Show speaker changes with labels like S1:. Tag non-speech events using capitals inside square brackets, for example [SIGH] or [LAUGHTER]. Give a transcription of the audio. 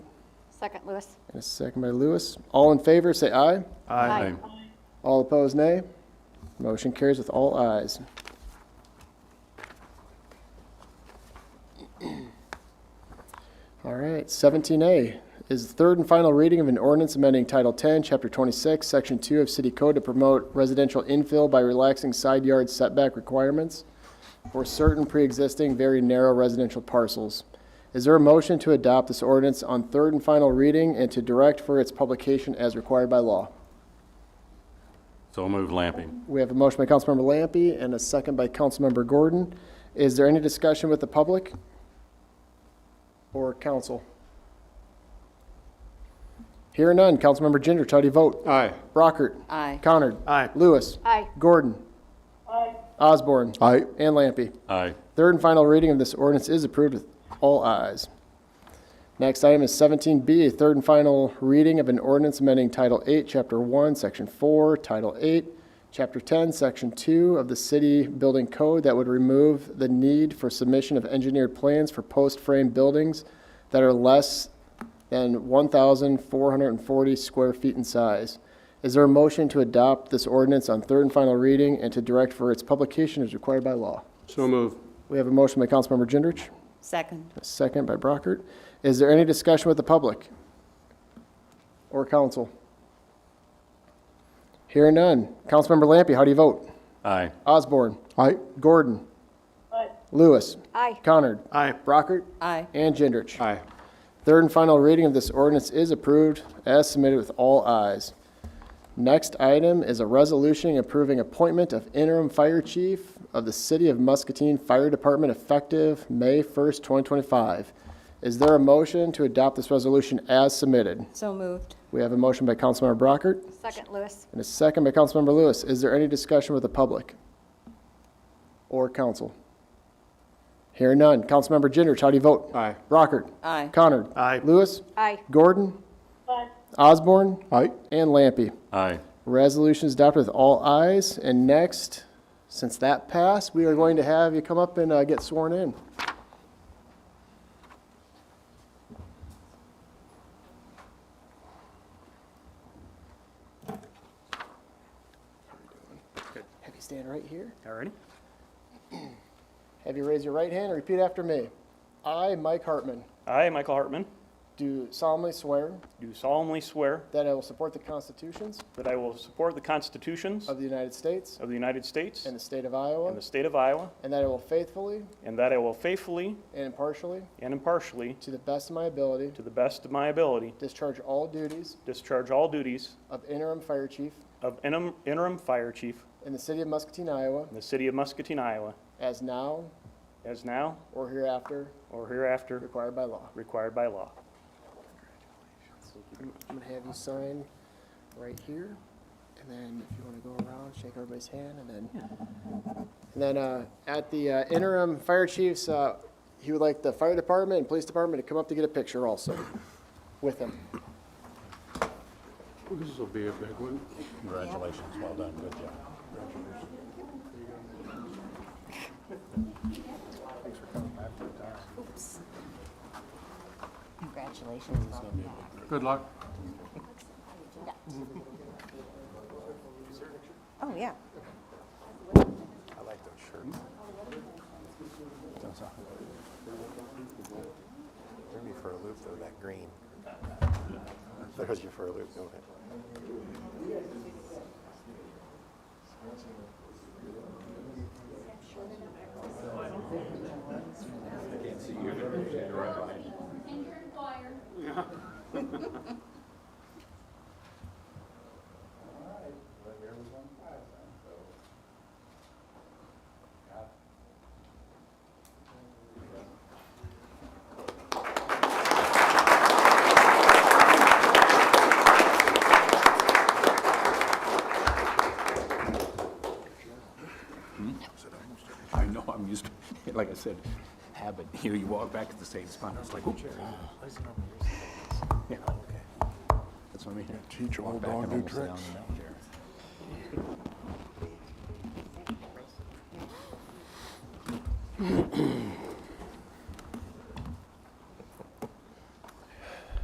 S1: Second, Lewis.
S2: And a second by Lewis. All in favor, say aye.
S1: Aye.
S2: All opposed, nay. Motion carries with all ayes. [CLEARS THROAT] All right, 17A is the third and final reading of an ordinance amending Title 10, Chapter 26, Section 2 of City Code to promote residential infill by relaxing side yard setback requirements for certain pre-existing very narrow residential parcels. Is there a motion to adopt this ordinance on third and final reading and to direct for its publication as required by law?
S3: So move Lamping.
S2: We have a motion by Councilmember Lampy and a second by Councilmember Gordon. Is there any discussion with the public or council? Hearing none. Councilmember Gendrich, how do you vote?
S4: Aye.
S2: Brockert.
S5: Aye.
S2: Connard.
S4: Aye.
S2: Lewis.
S1: Aye.
S2: Gordon. Osborne.
S4: Aye.
S2: And Lampy.
S3: Aye.
S2: Third and final reading of this ordinance is approved with all ayes. Next item is 17B, a third and final reading of an ordinance amending Title 8, Chapter 1, Section 4, Title 8, Chapter 10, Section 2 of the City Building Code that would remove the need for submission of engineered plans for post-frame buildings that are less than 1,440 square feet in size. Is there a motion to adopt this ordinance on third and final reading and to direct for its publication as required by law?
S4: So move.
S2: We have a motion by Councilmember Gendrich,
S5: Second.
S2: a second by Brockert. Is there any discussion with the public or council? Hearing none. Councilmember Lampy, how do you vote?
S3: Aye.
S2: Osborne,
S4: Aye.
S2: Gordon, Lewis,
S1: Aye.
S2: Connard,
S4: Aye.
S2: Brockert,
S5: Aye.
S2: and Gendrich.
S4: Aye.
S2: Third and final reading of this ordinance is approved as submitted with all ayes. Next item is a resolution approving appointment of interim fire chief of the City of Muscatine Fire Department effective May 1st, 2025. Is there a motion to adopt this resolution as submitted?
S5: So moved.
S2: We have a motion by Councilmember Brockert
S1: Second, Lewis.
S2: and a second by Councilmember Lewis. Is there any discussion with the public or council? Hearing none. Councilmember Gendrich, how do you vote?
S4: Aye.
S2: Brockert.
S5: Aye.
S2: Connard.
S4: Aye.
S2: Lewis.
S1: Aye.
S2: Gordon. Osborne.
S4: Aye.
S2: And Lampy.
S3: Aye.
S2: Resolution is adopted with all ayes. And next, since that passed, we are going to have you come up and uh, get sworn in. Have you stand right here.
S6: All righty.
S2: Have you raise your right hand and repeat after me. I, Mike Hartman,
S6: I, Michael Hartman,
S2: do solemnly swear
S6: do solemnly swear
S2: that I will support the constitutions
S6: that I will support the constitutions
S2: of the United States
S6: of the United States
S2: and the state of
S6: and
S2: Iowa,
S6: the state of Iowa,
S2: and that I will faithfully
S6: and that I will faithfully
S2: and impartially,
S6: and impartially,
S2: to the best of my ability,
S6: to the best of my ability,
S2: discharge all duties
S6: discharge all duties
S2: of interim fire chief
S6: of interim interim fire chief
S2: in the city of Muscatine, Iowa,
S6: in the city of Muscatine, Iowa,
S2: as now
S6: as now
S2: or hereafter
S6: or hereafter
S2: required by law.
S6: required by law.
S2: I'm gonna have you sign right here, and then if you wanna go around, shake everybody's hand, and then, and then, uh, at the uh, interim fire chiefs, uh, he would like the fire department and police department to come up to get a picture also with him.
S4: This will be a big one.
S3: Congratulations. Well done. Good job.
S5: Congratulations.
S4: Good luck.
S5: Oh, yeah.
S3: I like those shirts.
S7: Threw me for a loop though, that green. Throws you for a loop, don't it?
S8: I know, I'm used to, [LAUGHS] like I said, habit. [LAUGHS] You, you walk back to the same spot, it's like, oop. Yeah, okay. That's what I mean. Teach old dog new tricks.